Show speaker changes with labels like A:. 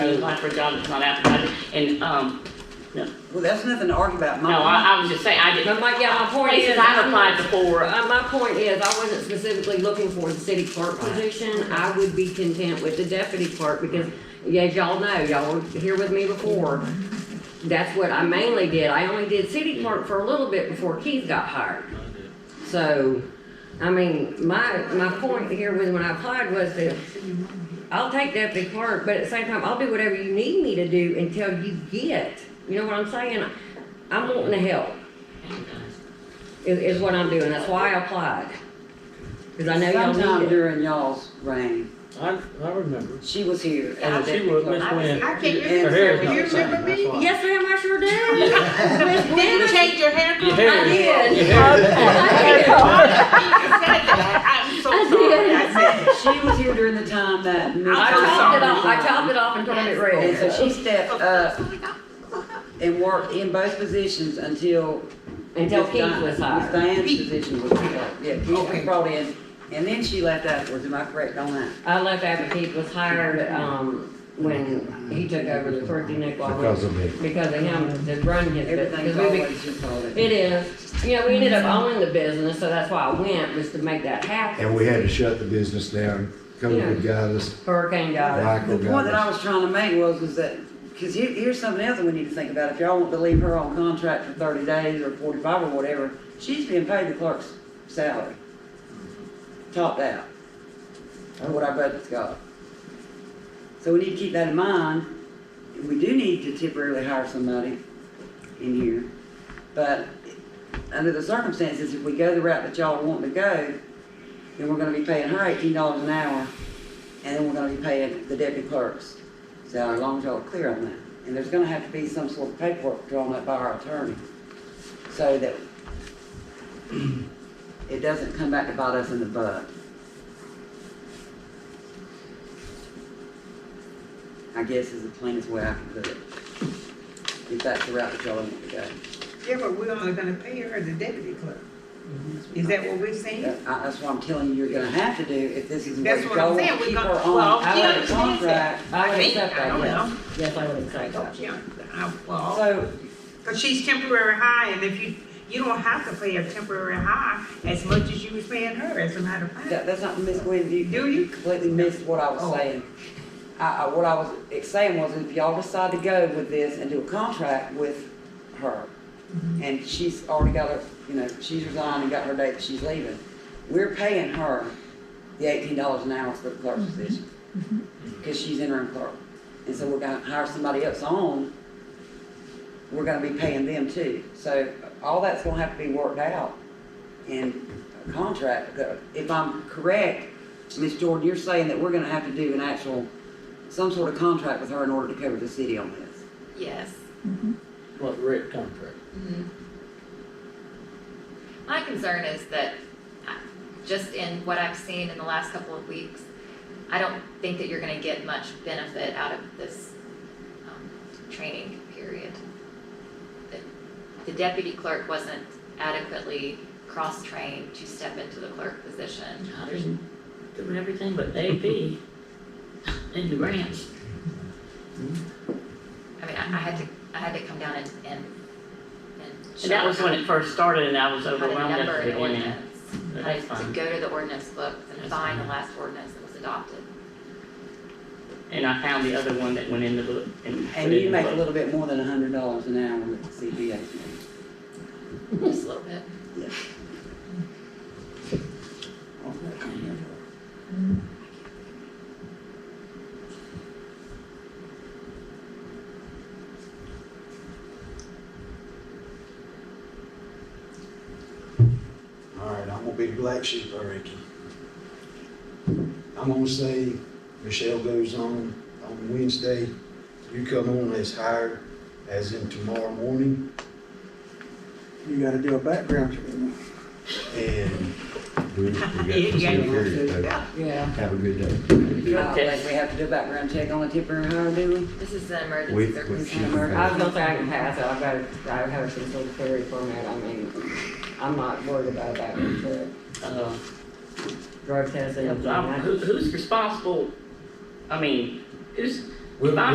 A: apply for a job that's not advertised, and, um, no,
B: Well, that's nothing to argue about,
A: no,
B: Mom.
A: I, I was just saying, I
C: But
A: didn't.
C: my, yeah, my point is.
A: Places I've applied before,
C: Uh, my point is, I wasn't specifically looking for the city clerk position, I would be content with the deputy clerk, because, yeah, as y'all know, y'all were here with me before. That's what I mainly did, I only did city clerk for a little bit before Keith got hired. So, I mean, my, my point here was when I applied was that I'll take deputy clerk, but at the same time, I'll do whatever you need me to do until you get, you know what I'm saying? I'm wanting to help is, is what I'm doing, that's why I applied. Cause I know y'all
B: Sometime
C: need it.
B: during y'all's reign,
D: I, I remember.
B: she was here
D: She
B: as a deputy
D: was Miss
B: clerk.
D: Wynn.
E: I can't
D: Her hair is
E: remember.
D: not
E: You
D: the same,
E: remember
D: that's
E: me?
D: why.
C: Yes, ma'am, I sure do. Miss
E: You
C: Dennis,
E: change your hair
D: Your
E: color?
D: hair is-
C: did.
D: Your hair is different.
E: I said that. I'm so
C: I
E: sorry.
C: did.
E: I said it.
B: She was here during the time that. Miss
C: I
E: I'm
C: chopped it
B: Thompson
C: off, I
B: resigned.
C: chopped it off and turned it
B: And so
C: red
B: she stepped up and worked in both positions until.
C: until
B: Miss
C: Keith
B: Di-
C: was
B: Miss
C: hired.
B: Diane's position was, yeah, Keith was brought in, and then she left afterwards, am I correct on that?
C: I left after Keith was hired, um, when he took over the Turkey Nickel.
F: Because of me.
C: Because of him to run his,
B: Everything's
C: because we, be-
B: always your fault.
C: it is, you know, we ended up owning the business, so that's why I went, was to make that happen.
F: And we had to shut the business down. COVID got us,
C: Hurricane got
F: Michael
B: The
F: got
B: point that I
F: us.
B: was trying to make was, was that, because here, here's something else that we need to think about. If y'all want to leave her on contract for thirty days or forty-five or whatever, she's being paid the clerk's salary. Topped out. Or what our budget's got. So we need to keep that in mind. We do need to temporarily hire somebody in here. But under the circumstances, if we go the route that y'all want to go, then we're gonna be paying her eighteen dollars an hour and then we're gonna be paying the deputy clerks. So as long as y'all are clear on that, and there's gonna have to be some sort of paperwork drawn up by our attorney, so that it doesn't come back to bite us in the butt. I guess is the plainest way I can put it. If that's the route that y'all want to go.
E: Yeah, but we're only gonna pay her the deputy clerk. Is that what we're saying?
B: That- I- That's what I'm telling you, you're gonna have to do if this is what
E: That's what I'm
B: y'all want
E: saying,
B: to
E: we're
B: keep
E: gonna-
B: her
E: well,
B: on
E: she
B: our
E: understands that.
B: contract.
C: it. I would
E: Me?
C: accept
E: I
C: that,
E: don't
C: yes,
E: know.
C: yes, I would accept that.
E: Yeah, I- well,
B: So
E: cause she's temporary high and if you, you don't have to pay her temporary high as much as you was paying her as a matter of fact.
B: That, that's not Miss Gwen, you,
E: Do
B: you completely missed what I was
E: Oh.
B: saying. I, I, what I was ex- saying was if y'all decide to go with this and do a contract with her, and she's already got her, you know, she's resigned and got her date that she's leaving, we're paying her the eighteen dollars an hour for the clerk position, cause she's interim clerk. And so we're gonna hire somebody else on, we're gonna be paying them too. So all that's gonna have to be worked out in a contract. If I'm correct, Ms. Jordan, you're saying that we're gonna have to do an actual, some sort of contract with her in order to cover the city on this.
G: Yes,
D: What, Rick contract?
A: Mm-hmm.
G: my concern is that, uh, just in what I've seen in the last couple of weeks, I don't think that you're gonna get much benefit out of this, um, training period. The- The deputy clerk wasn't adequately cross-trained to step into the clerk position.
A: Others doing everything but AP and the grants.
G: I mean, I, I had to, I had to come down and, and, and.
A: And that was when it first started and I was
G: How to
A: overwhelmed
G: number
A: at the
G: an
A: beginning.
G: ordinance,
A: But
G: how
A: that's
G: to- to
A: fine.
G: go to the ordinance book and
A: That's
G: find the
A: fine.
G: last ordinance that was adopted.
A: And I found the other one that went in the book and put
B: And
A: it
B: you
A: in the
B: make a
A: book.
B: little bit more than a hundred dollars an hour with the CPA.
G: Just a little bit.
F: All right, I'm gonna be the black sheep, I reckon. I'm gonna say Michelle goes on on Wednesday. You come on as hired, as in tomorrow morning,
H: You gotta do a background check.
F: and we, we got
E: Yeah,
F: this
E: yeah, you have
F: here
E: to.
F: period. though.
C: Yeah,
F: Have a good day.
B: God, like we have to do a background check on a temporary hire, do
G: This is an
F: We-
G: emergency
F: we
G: circumstance.
F: should-
C: I was gonna say I can pass it, I've got, it- I have some sort of theory format, I mean, I'm not worried about that, but
A: Uh,
C: drug testing.
A: I'm- Who, who's responsible? I mean, who's,
D: We'll-
A: Fine.